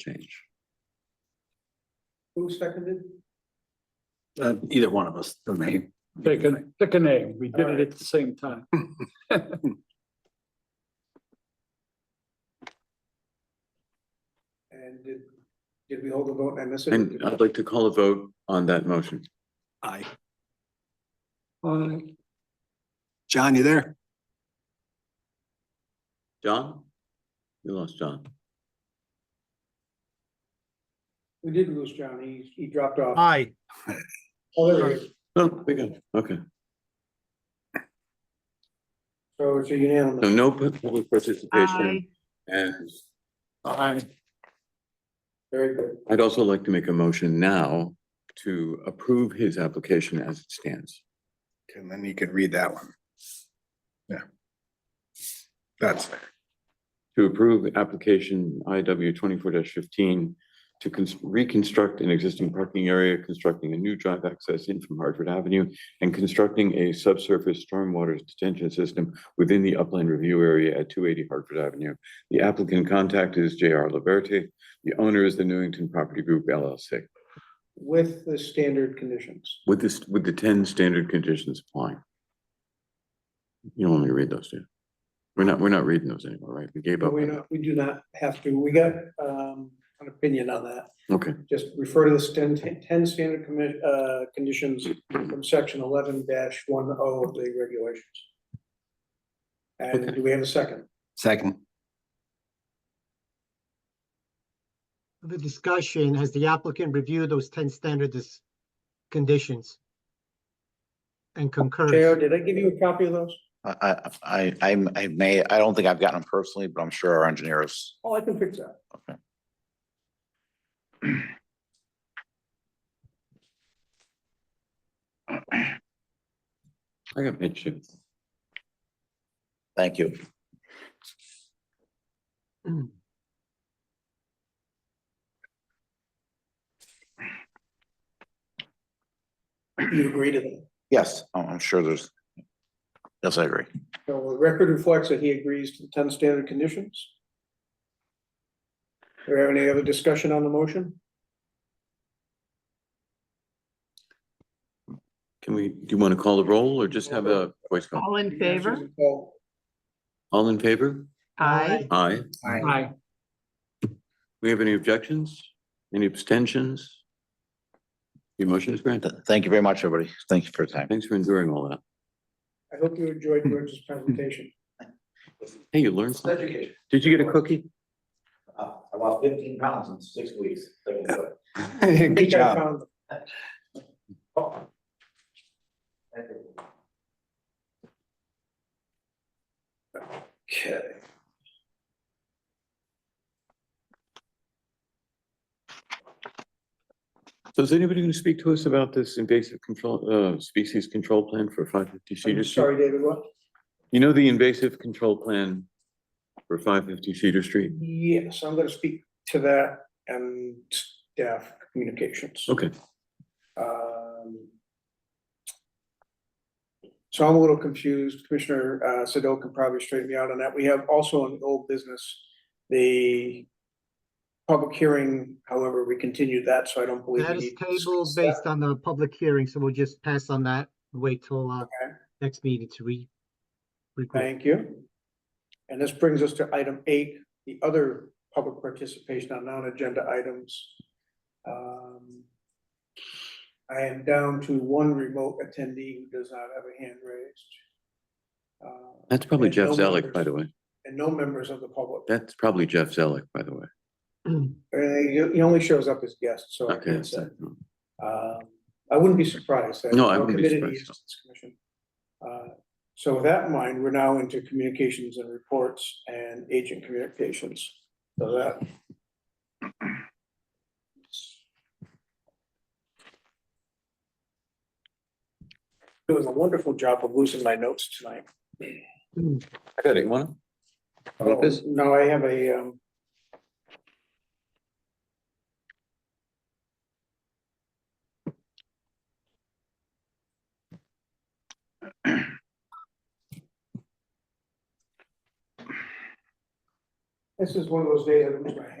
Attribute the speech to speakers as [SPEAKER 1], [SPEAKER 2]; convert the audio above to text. [SPEAKER 1] change.
[SPEAKER 2] Who seconded?
[SPEAKER 1] Uh, either one of us, the name.
[SPEAKER 3] Pick a, pick a name. We did it at the same time.
[SPEAKER 2] And did, did we hold a vote on this?
[SPEAKER 4] And I'd like to call a vote on that motion.
[SPEAKER 1] Aye.
[SPEAKER 3] Uh,
[SPEAKER 1] John, you there?
[SPEAKER 4] John? We lost John.
[SPEAKER 2] We did lose John. He, he dropped off.
[SPEAKER 5] Aye,
[SPEAKER 2] Oh, there he is.
[SPEAKER 4] Oh, we got, okay.
[SPEAKER 2] So it's a
[SPEAKER 4] So
[SPEAKER 2] unanimous.
[SPEAKER 4] no public participation. And
[SPEAKER 3] I,
[SPEAKER 2] Very good.
[SPEAKER 4] I'd also like to make a motion now to approve his application as it stands.
[SPEAKER 6] And then you could read that one. Yeah. That's,
[SPEAKER 4] To approve application IW twenty-four fifteen to cons- reconstruct an existing parking area, constructing a new drive access in from Hartford Avenue and constructing a subsurface stormwater detention system within the upland review area at two eighty Hartford Avenue. The applicant contact is J R Liberty. The owner is the Newington Property Group LLC
[SPEAKER 2] With the standard conditions.
[SPEAKER 4] with this, with the ten standard conditions applying. You don't want me to read those, do you? We're not, we're not reading those anymore, right? We gave
[SPEAKER 2] But
[SPEAKER 4] up.
[SPEAKER 2] we
[SPEAKER 4] on
[SPEAKER 2] not, we do not have to. We got, um, an opinion on that.
[SPEAKER 4] that. Okay.
[SPEAKER 2] Just refer to the 10 10 standard commit, uh, conditions from section eleven one oh of the regulations. And do we have a second?
[SPEAKER 1] Second.
[SPEAKER 5] the discussion, has the applicant reviewed those ten standard dis- conditions? And
[SPEAKER 2] Chair,
[SPEAKER 5] concurs.
[SPEAKER 2] did I give you a copy of those?
[SPEAKER 7] I, I, I, I'm- I may, I don't think I've gotten them personally, but I'm sure our engineers.
[SPEAKER 2] Oh, I can fix that.
[SPEAKER 7] Okay.
[SPEAKER 4] I got my chip.
[SPEAKER 7] Thank you.
[SPEAKER 2] You agree to that?
[SPEAKER 7] Yes, I'm, I'm sure there's. Yes, I agree.
[SPEAKER 2] So the record reflects that he agrees to the ten standard conditions. Do we have any other discussion on the motion?
[SPEAKER 4] Can we, do you want to call the roll or just have a voice call?
[SPEAKER 8] All in favor?
[SPEAKER 2] Oh,
[SPEAKER 4] All in favor?
[SPEAKER 8] Aye.
[SPEAKER 4] Aye.
[SPEAKER 3] I,
[SPEAKER 4] We have any objections? Any abstentions? Your motion is granted.
[SPEAKER 7] Th- Thank you very much, everybody. Thank you for your time.
[SPEAKER 4] Thanks for enduring all that.
[SPEAKER 2] I hope you enjoyed George's presentation.
[SPEAKER 4] Hey, you learned something.
[SPEAKER 7] education.
[SPEAKER 4] Did you get a cookie?
[SPEAKER 7] I lost fifteen pounds in six weeks.
[SPEAKER 2] Good
[SPEAKER 6] job.
[SPEAKER 2] Okay.
[SPEAKER 4] So is anybody going to speak to us about this invasive control, uh, species control plan for five fifty
[SPEAKER 2] I'm
[SPEAKER 4] Cedar Street?
[SPEAKER 2] sorry, David, what?
[SPEAKER 4] You know the invasive control plan for five fifty Cedar Street?
[SPEAKER 2] Yes, I'm gonna speak to that and staff communications.
[SPEAKER 4] Okay,
[SPEAKER 2] Um, So I'm a little confused. Commissioner uh, Sado can probably straighten me out on that. We have also an old business, the public hearing, however, we continued that, so I don't believe. we
[SPEAKER 5] That is
[SPEAKER 2] need to
[SPEAKER 5] tabled
[SPEAKER 2] discuss that.
[SPEAKER 5] based on the public hearing, so we'll just pass on that, wait till, uh, next meeting to re. regroup.
[SPEAKER 2] Thank you. And this brings us to item eight, the other public participation on non-agenda items. Um, I am down to one remote attendee who does not have a hand raised. Uh,
[SPEAKER 4] that's probably
[SPEAKER 2] and
[SPEAKER 4] Jeff
[SPEAKER 2] no
[SPEAKER 4] Zellick, by
[SPEAKER 2] members-
[SPEAKER 4] the way.
[SPEAKER 2] And no members of the public.
[SPEAKER 4] That's probably Jeff Zellick, by the way.
[SPEAKER 2] Uh, He he only shows up as guest, so. I
[SPEAKER 4] Okay.
[SPEAKER 2] can't say.
[SPEAKER 4] that's-
[SPEAKER 2] Um, I wouldn't be surprised.
[SPEAKER 4] No, I
[SPEAKER 2] we're
[SPEAKER 4] wouldn't be
[SPEAKER 2] committed to
[SPEAKER 4] surprised,
[SPEAKER 2] use this commission. Uh, So with that in mind, we're now into communications and reports and agent communications. So that. Doing a wonderful job of losing my notes tonight.
[SPEAKER 4] I got it, one.
[SPEAKER 2] Oh, No, I have a, um. This is one of those days I lose my